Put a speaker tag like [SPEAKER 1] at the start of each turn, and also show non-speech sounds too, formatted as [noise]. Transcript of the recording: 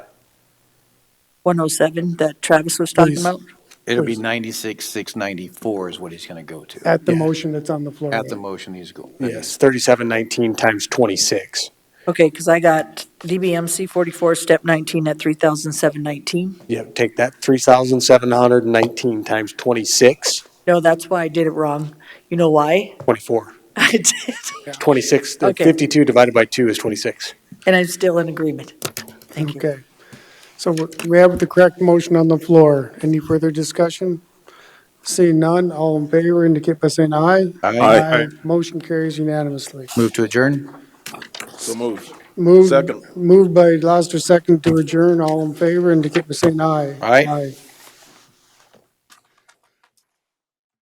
[SPEAKER 1] 107 that Travis was talking
[SPEAKER 2] Please.
[SPEAKER 1] about?
[SPEAKER 3] It'll be
[SPEAKER 2] Please.
[SPEAKER 3] 96,694 is what he's going to go to.
[SPEAKER 2] At the
[SPEAKER 4] Yeah.
[SPEAKER 2] motion that's on the floor.
[SPEAKER 3] At the motion, he's going.
[SPEAKER 4] Yes, thirty-seven nineteen times twenty-six.
[SPEAKER 1] Okay, because I got DBMC 44, step 19 at 3,719.
[SPEAKER 4] Yep, take that three thousand seven hundred and nineteen times twenty-six,
[SPEAKER 1] No, that's why I did it wrong. You know why? [laughs]
[SPEAKER 4] twenty-four.
[SPEAKER 1] I did,
[SPEAKER 4] Twenty-six, the
[SPEAKER 1] Okay.
[SPEAKER 4] fifty-two divided by two is twenty-six.
[SPEAKER 1] and I'm still in agreement. Thank you.
[SPEAKER 2] Okay. So we- we have the correct motion on the floor. Any further discussion? Seeing none, all in favor indicate by saying aye.
[SPEAKER 3] Aye.
[SPEAKER 2] Motion carries unanimously.
[SPEAKER 3] Move to adjourn?
[SPEAKER 5] So moved.
[SPEAKER 2] Moved,
[SPEAKER 5] Second.
[SPEAKER 2] moved by Laster, second to adjourn. All in favor indicate by saying aye.
[SPEAKER 3] Aye.
[SPEAKER 2] Aye.